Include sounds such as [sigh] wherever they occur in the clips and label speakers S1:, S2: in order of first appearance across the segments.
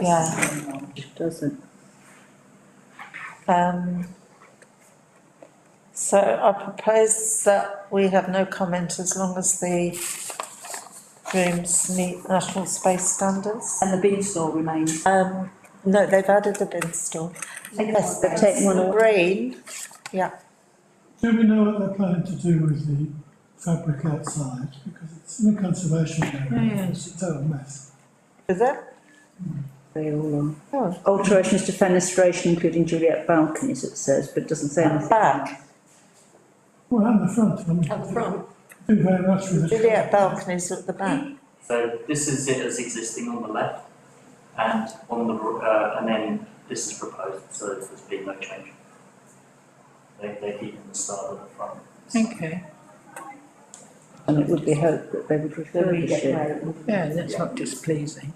S1: Yeah,
S2: Doesn't.
S1: um. So I propose that we have no comment as long as the rooms meet national space standards.
S3: And the bin store remains.
S1: Um, no, they've added a bin store. Yes,
S2: they've taken one away.
S1: Green,
S4: Do we know what they're planning to do with the fabric outside? Because it's in a conservation area, it's a total mess.
S1: is it?
S2: They all on.
S1: Oh,
S2: Alterations to fenestration, including Juliet balconies, it says, but doesn't say anything.
S1: back,
S4: Well, and the front, I mean. At the front. Do very much with it.
S1: Juliet balconies at the back.
S5: So this is it as existing on the left and on the, r- uh, and then this is proposed, so there's been no change. They, they keep in the style of the front.
S6: Okay,
S2: And it would be hoped that they would refurbish it.
S6: yeah, that's not displeasing.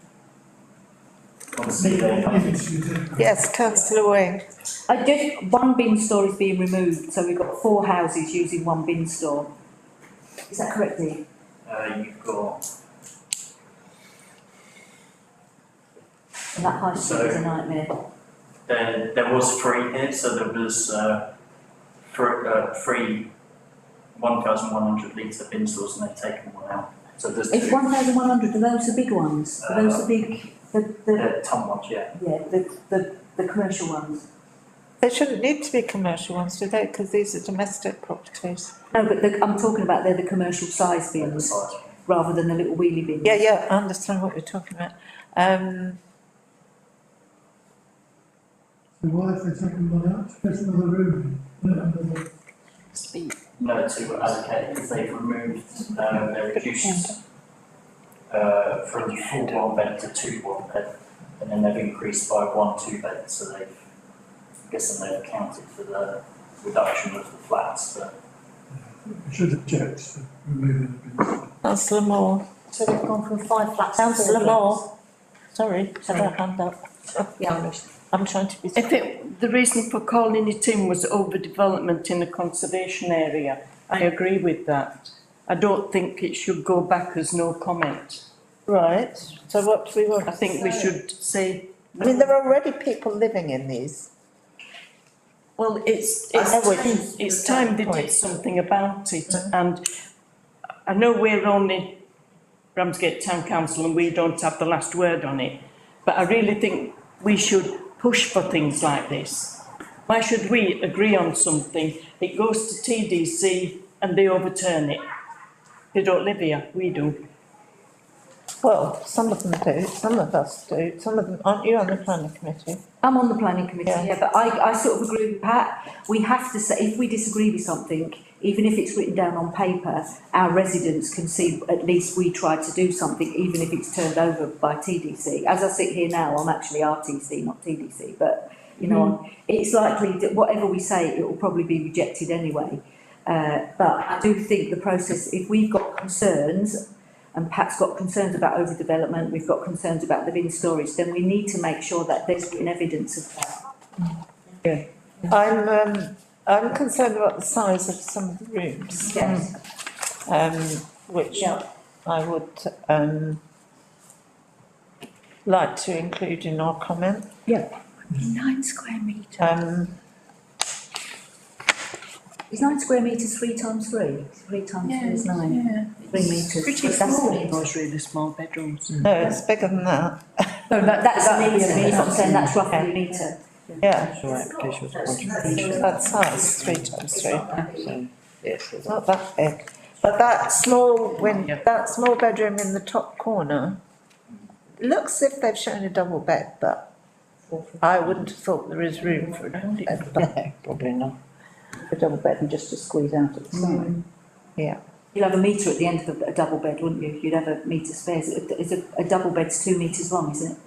S5: Obviously, they
S4: Leave
S5: have,
S4: it to you.
S1: Yes, councillor Wing,
S3: I just, one bin store is being removed, so we've got four houses using one bin store. Is that correct, Dee?
S5: uh, you've got,
S3: And that high street is a
S5: So-
S3: nightmare.
S5: there, there was three here, so there was, uh, three, uh, three one thousand one hundred litre bin stores and they've taken one out. So there's
S3: It's
S5: two,
S3: one thousand one hundred, are those the big ones? Are those the big, the, the,
S5: they're uh, ton ones, yeah.
S3: yeah, the, the, the commercial ones?
S1: they shouldn't need to be commercial ones, do they? Because these are domestic properties.
S3: No, but the, I'm talking about they're the commercial size
S5: they're the
S3: bins,
S5: size.
S3: rather than the little wheelie bins.
S1: Yeah, yeah, I understand what you're talking about. Um,
S4: So why have they taken one out? There's another room, in, no, another,
S5: No, to allocate, because they've removed, um, they reduced uh, from four one bed to two one bed, and then they've increased by one two bed, so they've, I'm guessing they've accounted for the reduction of the flats, but
S4: I should object to removing the bin.
S1: councillor Moore,
S7: So they've gone from five flats to four
S1: councillor
S7: flats.
S1: Moore, sorry, had a hand up.
S7: Yeah.
S1: I'm trying to be.
S8: If it, the reason for calling it in was overdevelopment in a conservation area, I agree with that. I don't think it should go back as no comment.
S1: Right, so what do we want?
S8: I think we should say.
S1: I mean, there are already people living in these.
S8: Well, it's,
S1: I
S8: it's
S1: know what
S8: time, it's time they
S1: Point.
S8: did something about it
S1: Mm-hmm.
S8: and I know we're only Ramsgate Town Council and we don't have the last word on it, but I really think we should push for things like this. Why should we agree on something? It goes to TDC and they overturn it. They don't live here, we do.
S1: Well, some of them do, some of us do, some of them, aren't you on the planning committee?
S3: I'm on the planning committee,
S1: Yeah.
S3: yeah, but I, I sort of agree with Pat. We have to say, if we disagree with something, even if it's written down on paper, our residents can see at least we tried to do something, even if it's turned over by TDC. As I sit here now, I'm actually RTC, not TDC, but, you know, it's likely that whatever we say, it will probably be rejected anyway. Uh, but I do think the process, if we've got concerns and Pat's got concerns about overdevelopment, we've got concerns about the bin storage, then we need to make sure that there's written evidence of that.
S1: I'm, um, I'm concerned about the size of some of the rooms.
S3: Yes.
S1: Um, which
S3: Yeah.
S1: I would, um, like to include in our comment.
S7: Nine square metres.
S1: Um,
S3: Is nine square metres three times three? Three times three is nine,
S6: Yeah,
S3: three metres.
S8: Pretty
S3: That's
S8: small,
S3: three.
S8: those really small bedrooms.
S1: no, it's bigger than that,
S3: No,
S1: [laughs]
S3: that, that's a metre,
S2: yeah,
S3: it's not saying that's roughly
S1: yeah.
S3: a metre.
S1: yeah,
S7: Visual
S1: that size, three times three. Mm. It's not that big, but that small win, that small bedroom in the top corner. Looks if they've shown a double bed, but I wouldn't have thought there is room for a double bed,
S2: [laughs]
S1: but,
S2: Probably not. A double bed and just to squeeze out at the side.
S1: yeah.
S3: You'd have a metre at the end of a, a double bed, wouldn't you? You'd have a metre spares. It's a, a double bed's two metres long, isn't it?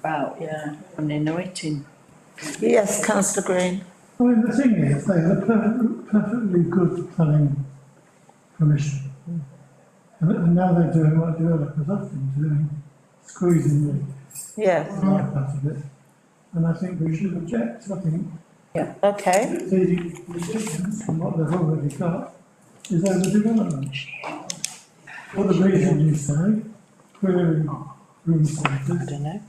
S2: About.
S8: Yeah, and they know it in.
S1: Yes, councillor Green,
S4: I mean, the thing is, they had a per- perfectly good planning permission. And, and now they're doing what developers have been doing, squeezing the
S1: yes,
S4: life out of it. And I think we should object, I think
S1: okay,
S4: the reasons from what they've already got is overdevelopment. For the reason you say, clearing room centres.
S2: don't know.